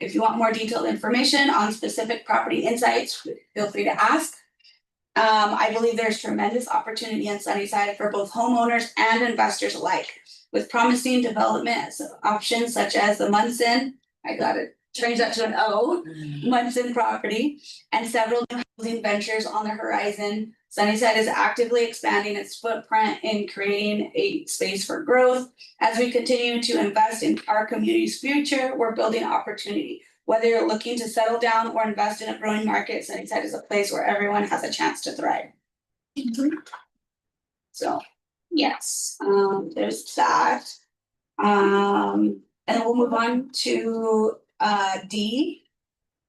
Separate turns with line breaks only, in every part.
If you want more detailed information on specific property insights, feel free to ask. Um, I believe there's tremendous opportunity in Sunnyside for both homeowners and investors alike. With promising development options such as the Munson, I gotta change that to an O. Munson property and several new housing ventures on the horizon. Sunnyside is actively expanding its footprint in creating a space for growth. As we continue to invest in our community's future, we're building opportunity. Whether you're looking to settle down or invest in a growing market, Sunnyside is a place where everyone has a chance to thrive. So, yes, um, there's that. Um, and we'll move on to uh D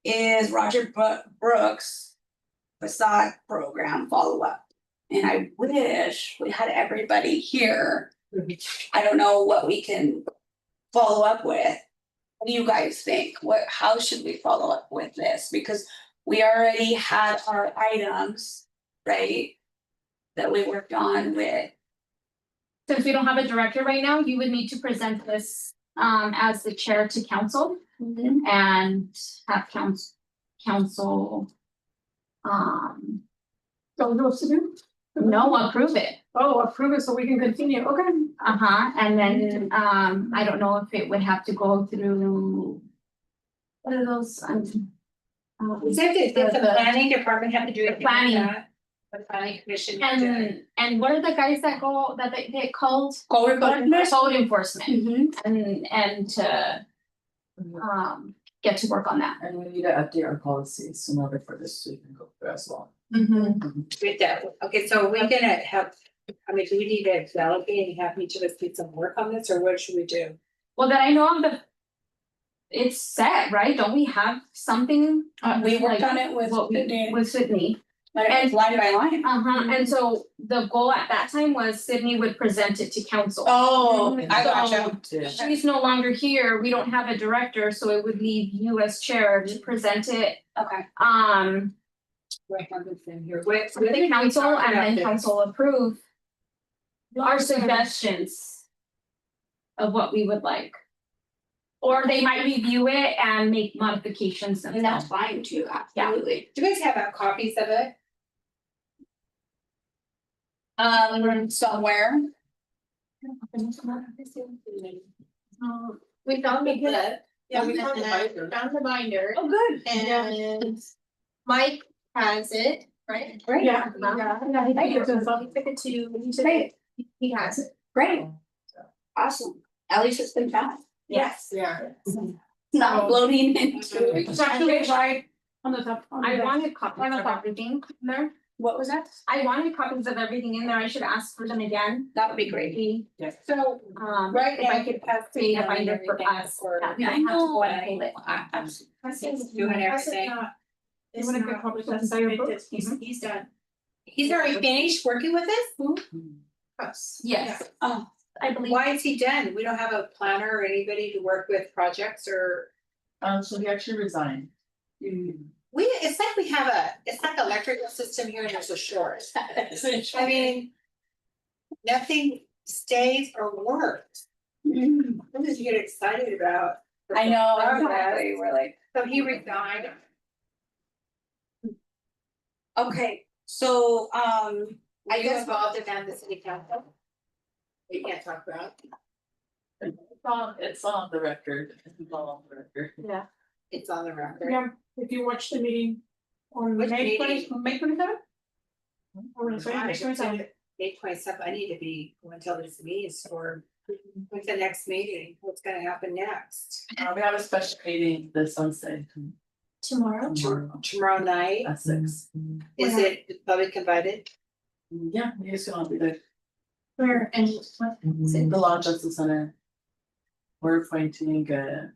is Roger Bro- Brooks facade program follow-up. And I wish we had everybody here. I don't know what we can follow up with. What do you guys think? What, how should we follow up with this? Because we already had our items, right? That we worked on with,
Since we don't have a director right now, you would need to present this um as the chair to council Mm-hmm. and have council council. Um,
Don't know what to do?
no, approve it,
Oh, approve it so we can continue, okay. Mm-hmm.
uh-huh, and then um I don't know if it would have to go through. What are those, um. um,
Is that the, does the planning department have to do it?
Planning.
The planning commission. have to do it?
And and what are the guys that go, that they get called?
code enforcement.
Code enforcement
Mhm.
and and to. Um, get to work on that.
And we need to update our policies in order for this to even go through as well.
With that, okay, so we're gonna have, I mean, do we need to develop it and have each of us do some work on this, or what should we do?
Well, that I know of the. It's set, right? Don't we have something?
Uh, we worked on it with, Mm-hmm.
What we,
Whitney,
with Sydney.
but it was line by line.
Uh-huh, and so the goal at that time was Sydney would present it to council.
Oh,
I gotcha.
To
She's no longer here, we don't have a director, so it would leave you as chair
Mm-hmm.
to present it,
Okay,
um,
What happens in here? What-
to the council and then council approve. Our suggestions. Of what we would like. Or they might review it and make modifications
and that's
themselves.
fine too, absolutely.
Do you guys have uh, copies of it?
Um, somewhere.
We found a book.
Yeah, we found the
and
binder.
Found the binder
Oh, good.
and Mike has uh, it, right?
Great.
Yeah.
Yeah, he
Thank you.
took it to, he took
Great.
it, he has it.
Great. Awesome. At least it's been found.
Yes,
Yeah.
It's not floating into.
It's actually right on the top. on the
I
back.
wanted copies of everything in there.
What was that?
I wanted copies of everything in there. I should ask for them again.
That would be great.
Maybe,
So,
um,
right
if
now,
I
you
could
could pass.
create a
down
binder for
everything
us.
for-
that
Yeah,
I
I
have to go and
know.
pull it.
I- I'm-
You and everything.
They wouldn't get published as a book.
Mm-hmm.
He's, he's done.
He's already finished working with us?
Hmm.
Us.
Yes. Um,
Oh.
I believe.
Why is he done? We don't have a planner or anybody to work with projects or?
Um, so he actually resigned. Hmm.
We, it's like we have a, it's like electrical system here and there's a short.
Mm-hmm.
I mean. Nothing stays or works.
Mm,
What did you get excited about?
I know, exactly. We're like,
So he resigned.
okay, so, um,
Were you
guess-
involved in that, the city council? We can't talk about.
It's on, it's on the record, it's all on the record.
It's on the record.
Yeah, if you watch the meeting on
Which
May twenty,
meeting?
May twenty seven?
May twenty seventh, I need to be, until this meeting is for, when's the next meeting? What's gonna happen next?
Uh, we have a special meeting this Wednesday
Tomorrow?
tomorrow
Tomorrow night,
at six.
is it the public invited?
Hmm, Yeah, we just gonna be there. Hmm.
Where and what?
The Law Justice Center. We're appointing a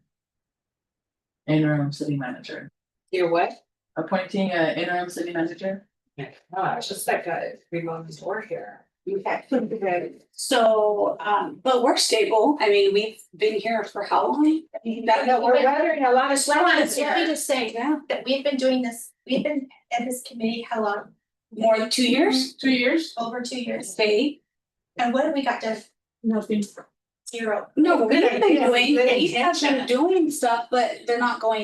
interim city manager,
Your what?
appointing a interim city manager.
Gosh, Oh, it's like a remote store here.
so, um, but we're stable. I mean, we've been here for how long?
No, no, we're weathering a lot of
Well, I
storms
was, let me
here.
just say
Yeah,
that we've been doing this, we've been at this committee how long?
more than two years,
Two years?
Over two years.
stay.
And what have we got done?
Nothing.
Zero.
No, we've
Good
been
idea.
doing,
Good
they have been
intention.
doing stuff, but they're not going